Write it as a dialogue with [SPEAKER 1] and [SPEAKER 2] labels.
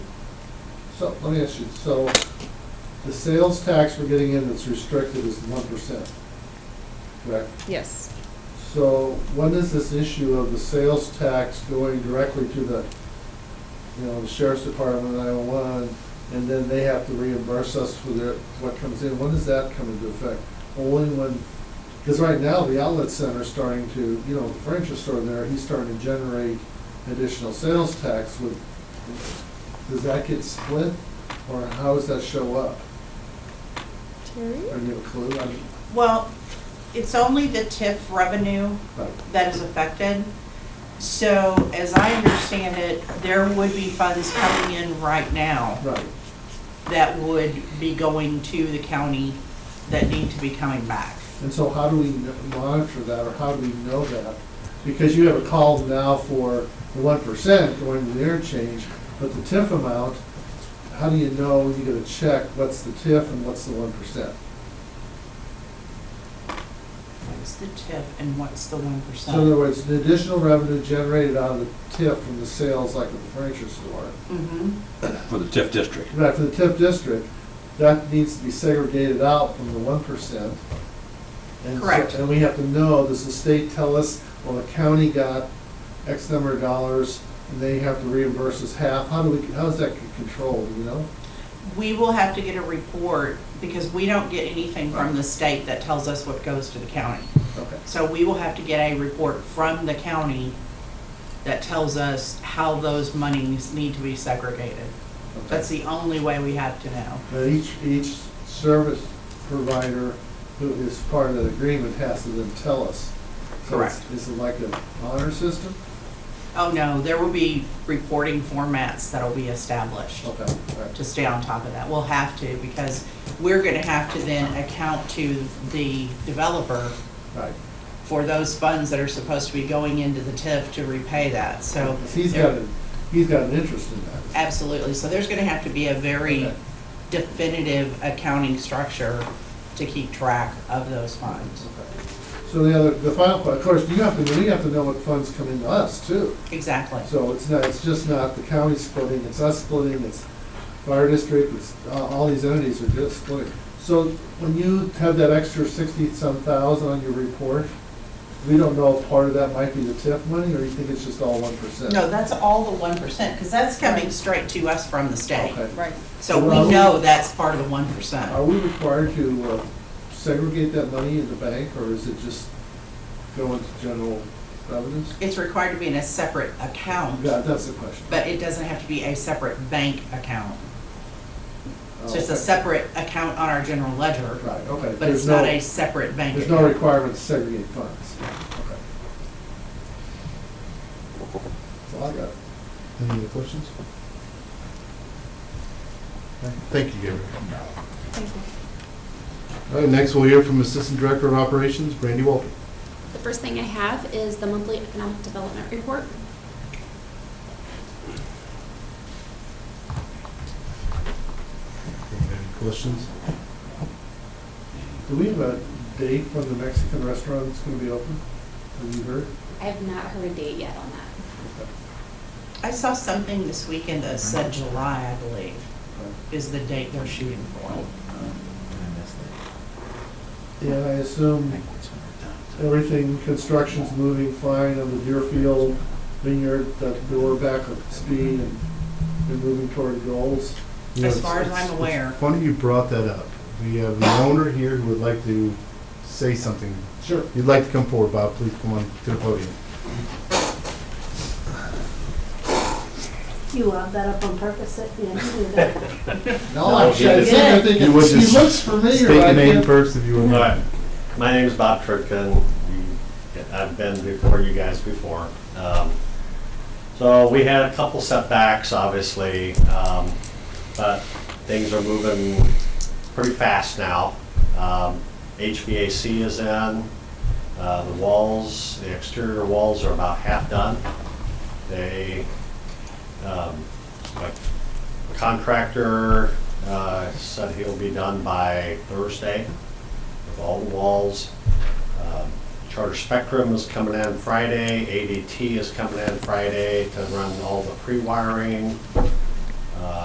[SPEAKER 1] So, let me ask you, so the sales tax we're getting in that's restricted is one percent, correct?
[SPEAKER 2] Yes.
[SPEAKER 1] So when is this issue of the sales tax going directly to the, you know, the sheriff's department, nine-one-one, and then they have to reimburse us for their, what comes in? When does that come into effect? Only when, because right now, the outlet center's starting to, you know, the furniture store there, he's starting to generate additional sales tax with, does that get split? Or how does that show up? Are
[SPEAKER 2] Terry?
[SPEAKER 1] you a clue? I mean,
[SPEAKER 3] Well, it's only the TIF revenue
[SPEAKER 1] like,
[SPEAKER 3] that is affected. So as I understand it, there would be funds coming in right now
[SPEAKER 1] Right,
[SPEAKER 3] that would be going to the county that need to be coming back.
[SPEAKER 1] And so how do we kn- monitor that, or how do we know that? Because you have a call now for the one percent going to the interchange, but the TIF amount, how do you know, you get a check, what's the TIF and what's the one percent?
[SPEAKER 3] What's the TIF and what's the one
[SPEAKER 1] So in other
[SPEAKER 3] percent?
[SPEAKER 1] words, the additional revenue generated out of the TIF from the sales, like at the furniture store,
[SPEAKER 3] Mm-hmm,
[SPEAKER 4] for the TIF district.
[SPEAKER 1] right, for the TIF district, that needs to be segregated out from the one percent.
[SPEAKER 3] Correct.
[SPEAKER 1] And we have to know, does the state tell us, well, the county got X number of dollars, and they have to reimburse us half, how do we, how is that controlled, you know?
[SPEAKER 3] we will have to get a report because we don't get anything from the state that tells us what goes to the county.
[SPEAKER 1] Okay,
[SPEAKER 3] So we will have to get a report from the county that tells us how those monies need to be segregated.
[SPEAKER 1] okay.
[SPEAKER 3] That's the only way we have to know.
[SPEAKER 1] Now, each, each service provider who is part of the agreement has to then tell us. So it's-
[SPEAKER 3] Correct.
[SPEAKER 1] Is it like an honor system?
[SPEAKER 3] Oh, no, there will be reporting formats that'll be established
[SPEAKER 1] Okay, all right.
[SPEAKER 3] to stay on top of that. We'll have to because we're gonna have to then account to the developer
[SPEAKER 1] right.
[SPEAKER 3] for those funds that are supposed to be going into the TIF to repay that, so.
[SPEAKER 1] 'Cause He's
[SPEAKER 3] there-
[SPEAKER 1] got, a- he's got an interest in that.
[SPEAKER 3] Absolutely, so there's gonna have to be a very
[SPEAKER 1] Okay.
[SPEAKER 3] definitive accounting structure to keep track of those funds.
[SPEAKER 1] So the other, the final part, of course, you have to, we have to know what funds come into us too.
[SPEAKER 3] Exactly,
[SPEAKER 1] So it's not, it's just not the county splitting, it's us splitting, it's fire district, it's, uh, all these entities are just splitting. So when you have that extra sixty-some thousand on your report, we don't know if part of that might be the TIF money, or you think it's just all one percent?
[SPEAKER 3] no, that's all the one percent, because that's coming straight to us from the state.
[SPEAKER 1] Okay.
[SPEAKER 2] Right.
[SPEAKER 3] So
[SPEAKER 1] Well-
[SPEAKER 3] we know that's part of the one
[SPEAKER 1] Are
[SPEAKER 3] percent.
[SPEAKER 1] we required to uh, segregate that money in the bank, or is it just go into general revenues?
[SPEAKER 3] It's required to be in a separate account,
[SPEAKER 1] Yeah, that's the question.
[SPEAKER 3] but it doesn't have to be a separate bank account. So it's
[SPEAKER 1] Oh, Okay.
[SPEAKER 3] a separate account on our general ledger,
[SPEAKER 1] Right, okay.
[SPEAKER 3] but
[SPEAKER 1] There's
[SPEAKER 3] it's not
[SPEAKER 1] no.
[SPEAKER 3] a separate bank
[SPEAKER 1] There's no
[SPEAKER 3] account.
[SPEAKER 1] requirement to segregate funds. Okay. That's all I got.
[SPEAKER 5] Any other questions? Thank you, Gary.
[SPEAKER 2] Thank you.
[SPEAKER 5] All right, next we'll hear from Assistant Director of Operations, Brandy Walter.
[SPEAKER 6] The first thing I have is the monthly economic development report.
[SPEAKER 5] Any questions?
[SPEAKER 1] Do we have a date when the Mexican restaurant is going to be open? Have you heard?
[SPEAKER 6] I have not heard a date yet on that.
[SPEAKER 3] I saw something this weekend that said July, I believe, is the date they're shooting for.
[SPEAKER 1] Yeah, I assume everything, construction's moving fine on the Deerfield vineyard, that they were back at speed and they're moving toward goals.
[SPEAKER 5] You know,
[SPEAKER 3] As far
[SPEAKER 5] it's-
[SPEAKER 3] as I'm
[SPEAKER 5] it's-
[SPEAKER 3] aware.
[SPEAKER 5] it's Funny you brought that up. We have an owner here who would like to say something.
[SPEAKER 1] Sure.
[SPEAKER 5] You'd like to come forward, Bob, please come on to the podium.
[SPEAKER 7] You love that up on purpose, that you didn't do that.
[SPEAKER 1] No, I'm sure, I think, I think, he
[SPEAKER 5] You would just
[SPEAKER 1] looks familiar.
[SPEAKER 5] State
[SPEAKER 1] I
[SPEAKER 5] your name
[SPEAKER 1] can't-
[SPEAKER 5] first if you would.
[SPEAKER 8] All right. My name is Bob Trutkin. We- I've been before you guys before. Um, So we had a couple setbacks, obviously, um, but things are moving pretty fast now. Um, HVAC is in. Uh, The walls, the exterior walls are about half done. They, um, like contractor uh, said he'll be done by Thursday with all the walls. Um, Charter Spectrum is coming in Friday, ADT is coming in Friday to run all the pre-wiring. Uh,